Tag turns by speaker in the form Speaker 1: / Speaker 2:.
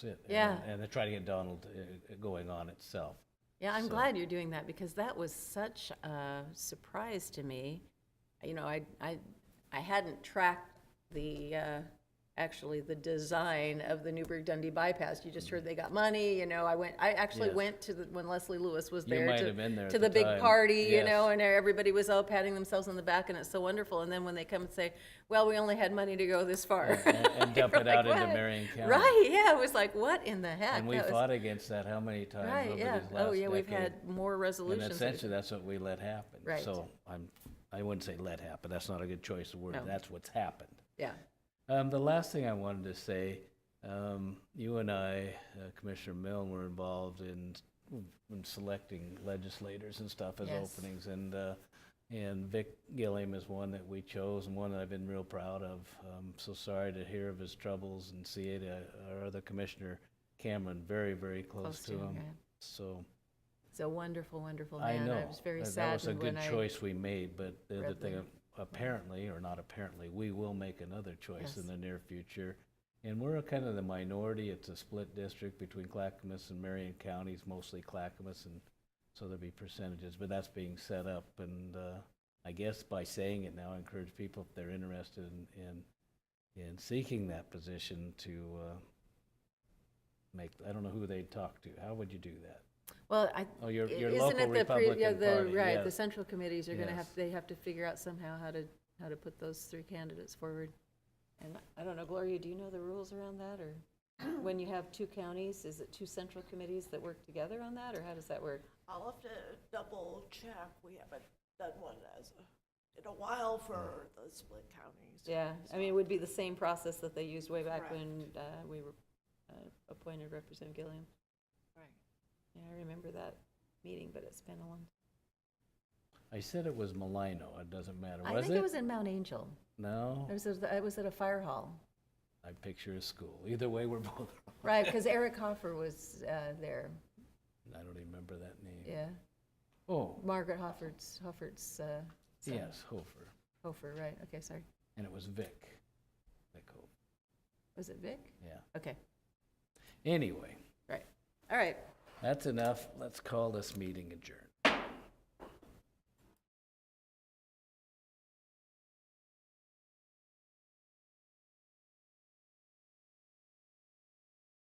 Speaker 1: it. and-
Speaker 2: Yeah.
Speaker 1: And they're trying to get Donald uh, going on itself.
Speaker 2: Yeah, I'm
Speaker 1: So-
Speaker 2: glad you're doing that because that was such a surprise to me. You know, I I I hadn't tracked the uh, actually the design of the Newburgh Dundee bypass. You just heard they got money. You know, I went. I actually
Speaker 1: Yes.
Speaker 2: went to the when Leslie Lewis was
Speaker 1: You
Speaker 2: there
Speaker 1: might
Speaker 2: to,
Speaker 1: have been there
Speaker 2: to
Speaker 1: at
Speaker 2: the,
Speaker 1: the
Speaker 2: big
Speaker 1: time.
Speaker 2: party. You know,
Speaker 1: Yes.
Speaker 2: and everybody was all patting themselves on the back, and it's so wonderful. And then when they come and say, "Well, we only had money to go this far,"
Speaker 1: And- and dump
Speaker 2: You're
Speaker 1: it out
Speaker 2: like,
Speaker 1: into
Speaker 2: "What?"
Speaker 1: Marion County.
Speaker 2: Right? Yeah, it was like, "What in the heck?"
Speaker 1: And we
Speaker 2: That was-
Speaker 1: fought against that how many times
Speaker 2: Right,
Speaker 1: over
Speaker 2: yeah.
Speaker 1: these last
Speaker 2: Oh, yeah, we've
Speaker 1: decade?
Speaker 2: had more
Speaker 1: And
Speaker 2: resolutions. that-
Speaker 1: essentially, that's what we let happen.
Speaker 2: Right.
Speaker 1: So I'm, I wouldn't say let happen, that's not a good choice of word,
Speaker 2: No.
Speaker 1: that's what's happened.
Speaker 2: Yeah,
Speaker 1: Um, the last thing I wanted to say, um, you and I, uh, Commissioner Milne, were involved in, in selecting legislators and stuff as
Speaker 2: Yes.
Speaker 1: openings, and uh, and Vic Gilliam is one that we chose and one that I've been real proud of. Um, so sorry to hear of his troubles and see it. Uh, our other commissioner, Cameron, very very close,
Speaker 2: close
Speaker 1: to him.
Speaker 2: yeah.
Speaker 1: So
Speaker 2: He's a wonderful, wonderful
Speaker 1: I
Speaker 2: man.
Speaker 1: know
Speaker 2: I was very
Speaker 1: that, that
Speaker 2: sad
Speaker 1: was a
Speaker 2: when
Speaker 1: good
Speaker 2: I.
Speaker 1: choice we made, but the other
Speaker 2: read
Speaker 1: thing,
Speaker 2: them.
Speaker 1: apparently or not apparently, we will make another choice in
Speaker 2: Yes.
Speaker 1: the near future. And we're kind of the minority. It's a split district between Clackamas and Marion counties, mostly Clackamas, and so there'll be percentages. But that's being set up, and uh, I guess by saying it now, I encourage people if they're interested in in, in seeking that position to. Uh, Make, I don't know who they'd talk to. How would you do that?
Speaker 2: Well, I.
Speaker 1: Oh, your,
Speaker 2: i-
Speaker 1: your
Speaker 2: isn't
Speaker 1: local
Speaker 2: it the pre-
Speaker 1: Republican
Speaker 2: yeah, the-
Speaker 1: Party.
Speaker 2: Right,
Speaker 1: yes.
Speaker 2: the central committees are gonna have,
Speaker 1: Yes.
Speaker 2: they have to figure out somehow how to, how to put those three candidates forward. And I don't know, Gloria, do you know the rules around that, or when you have two counties, is it two central committees that work together on that, or how does that work?
Speaker 3: I'll have to double check. We haven't done one as, a- in a while for the split counties.
Speaker 2: Yeah, I mean, it would be the same process that they used way back
Speaker 3: Correct.
Speaker 2: when uh, we were uh, appointed Representative Gilliam.
Speaker 3: Right.
Speaker 2: Yeah, I remember that meeting, but it's been a long.
Speaker 1: I said it was Malino. It doesn't matter.
Speaker 2: I
Speaker 1: Was
Speaker 2: think
Speaker 1: it? Oh.
Speaker 2: it was in Mount Angel.
Speaker 1: no.
Speaker 2: It was, at the- it was at a fire hall,
Speaker 1: I picture a school. Either way, we're both.
Speaker 2: right? Because Eric Hoffer was uh, there.
Speaker 1: I don't even remember that name.
Speaker 2: Yeah,
Speaker 1: Oh,
Speaker 2: Margaret Hoffert's Hoffert's uh, son.
Speaker 1: yes, Hofer.
Speaker 2: Hofer, right? Okay, sorry.
Speaker 1: And it was Vic. Vic Hofer.
Speaker 2: Was it Vic?
Speaker 1: Yeah.
Speaker 2: Okay,
Speaker 1: Anyway,
Speaker 2: right. All right.
Speaker 1: that's enough. Let's call this meeting adjourned.